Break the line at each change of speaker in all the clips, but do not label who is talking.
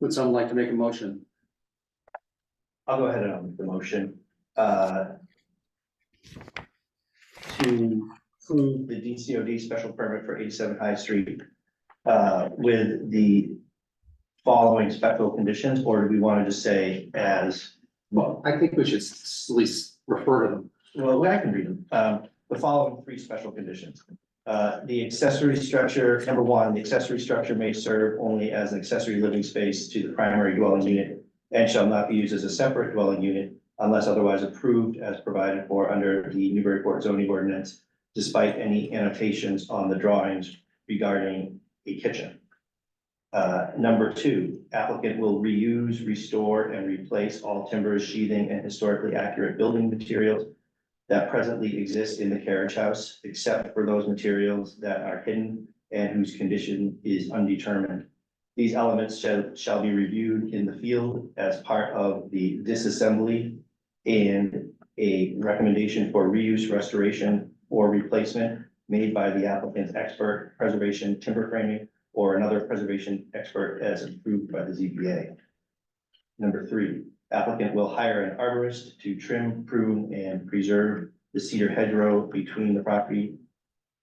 Would someone like to make a motion?
I'll go ahead and I'll make the motion, uh. To approve the DCOD special permit for eighty-seven High Street, uh, with the. Following special conditions, or do we want to just say as,
Well, I think we should s- at least refer to them.
well, I can read them, um, the following three special conditions. Uh, the accessory structure, number one, the accessory structure may serve only as an accessory living space to the primary dwelling unit. And shall not be used as a separate dwelling unit unless otherwise approved as provided for under the Newburyport zoning ordinance. Despite any annotations on the drawings regarding a kitchen. Uh, number two, applicant will reuse, restore, and replace all timbers, sheathing, and historically accurate building materials that presently exist in the carriage house, except for those materials that are hidden and whose condition is undetermined. These elements shall, shall be reviewed in the field as part of the disassembly and a recommendation for reuse, restoration, or replacement made by the applicant's expert preservation timber framing or another preservation expert as approved by the ZBA. Number three, applicant will hire an arborist to trim, prune, and preserve the cedar hedgerow between the property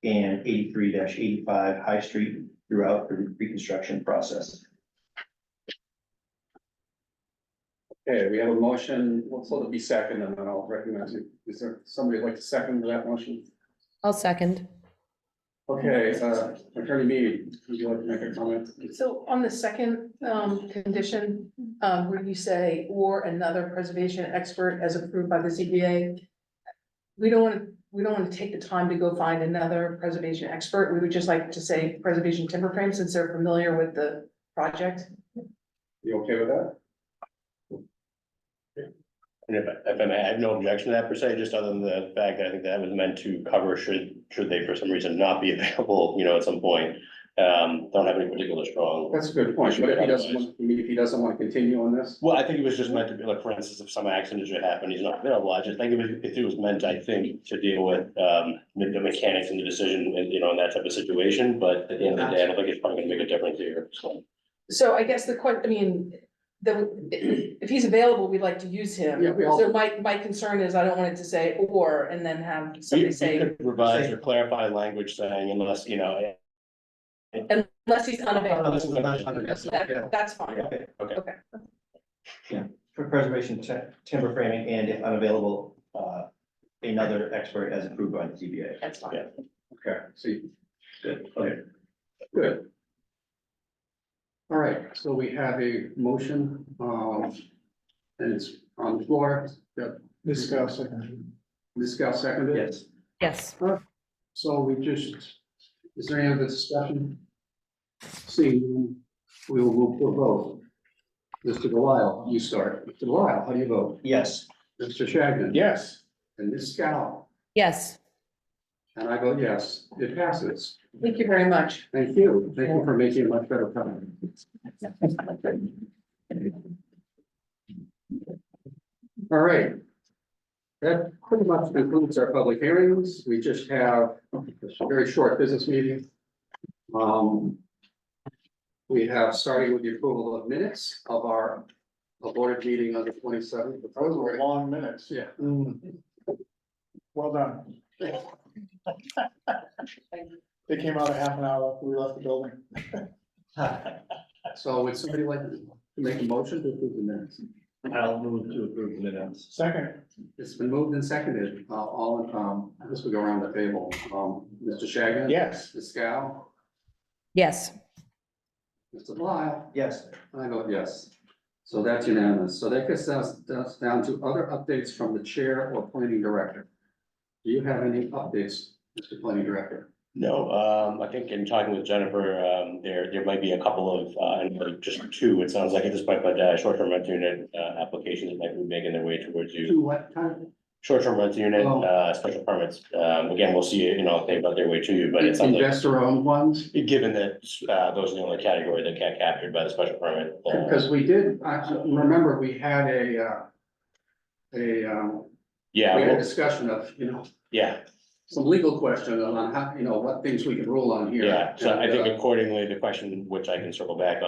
and eighty-three eighty-five High Street throughout the reconstruction process.
Okay, we have a motion, we'll sort of be second and then I'll recognize you. Is there somebody who'd like to second that motion?
I'll second.
Okay, uh, Attorney Mead, would you like to make a comment?
So on the second um condition, um where you say or another preservation expert as approved by the CBA. We don't want to, we don't want to take the time to go find another preservation expert. We would just like to say preservation timber frame since they're familiar with the project.
You okay with that?
And if, if I may, I have no objection to that per se, just other than the fact that I think that was meant to cover should, should they for some reason not be available, you know, at some point. Um, don't have any particular strong,
That's a good point, but if he doesn't, want- I mean, if he doesn't want to continue on this,
well, I think it was just meant to be like, for instance, if some accident should happen, he's not available. I just think it was, if it was meant, I think, to deal with, um, the the mechanics and the decision and, you know, and that type of situation. But at the end of the day, I don't think it's probably gonna make a difference here, so.
So I guess the question, I mean, the, if he's available, we'd like to use him.
Yeah, we all-
So my my concern is I don't want it to say or and then have
We
somebody
we
say
could revise or clarify language saying unless, you know.
unless he's unavailable.
unless it's not-
That- That's fine.
Okay, okay.
For preservation, ti- timber framing, and if unavailable, uh, another expert as approved by the ZBA.
That's fine.
Yeah.
okay, see,
Good, okay.
good. All right, so we have a motion, um, and it's on the floor, that
Ms. Scott, second.
Ms. Gao seconded.
Yes.
Yes.
So we just, is there any other discussion? Seeing, we will move to a vote. Mr. Delisle, you start. Mr. Delisle, how do you vote?
Yes,
Mr. Shagnon? Yes. And Ms. Scow?
Yes.
And I vote yes, it passes.
Thank you very much.
Thank you. Thank you for making a much better comment. All right. That pretty much concludes our public hearings. We just have a very short business meeting. Um. We have, starting with the approval of minutes of our aborted meeting on the twenty seventh.
Those were long minutes.
Yeah. Mm.
Well done. They came out a half an hour after we left the building.
So would somebody like to make a motion to approve the minutes?
I'll move to approve the minutes.
Second,
It's been moved and seconded, uh, all, um, this will go around the table, um, Mr. Shagan.
yes.
Mr. Scow,
Yes.
Mr. Blisle,
Yes,
I vote yes. So that's unanimous, so that gets us, us down to other updates from the chair or planning director. Do you have any updates, Mr. Planning Director?
No, um, I think in talking with Jennifer, um, there, there might be a couple of, uh, and like just two, it sounds like at this point, but, uh, short-term rental unit, uh, applications that might be making their way towards you.
To what time?
Short-term rental unit,
Oh.
uh, special permits, um, again, we'll see, you know, if they about their way to you, but it sounds like,
Investor owned ones,
given that, uh, those are the only category that get captured by the special permit. uh,
because we did, I, I remember we had a, uh, a, um,
Yeah,
we had a
well,
discussion of, you know,
yeah,
some legal question on how, you know, what things we can rule on here.
yeah, so I
And, uh,
think accordingly, the question, which I can circle back on.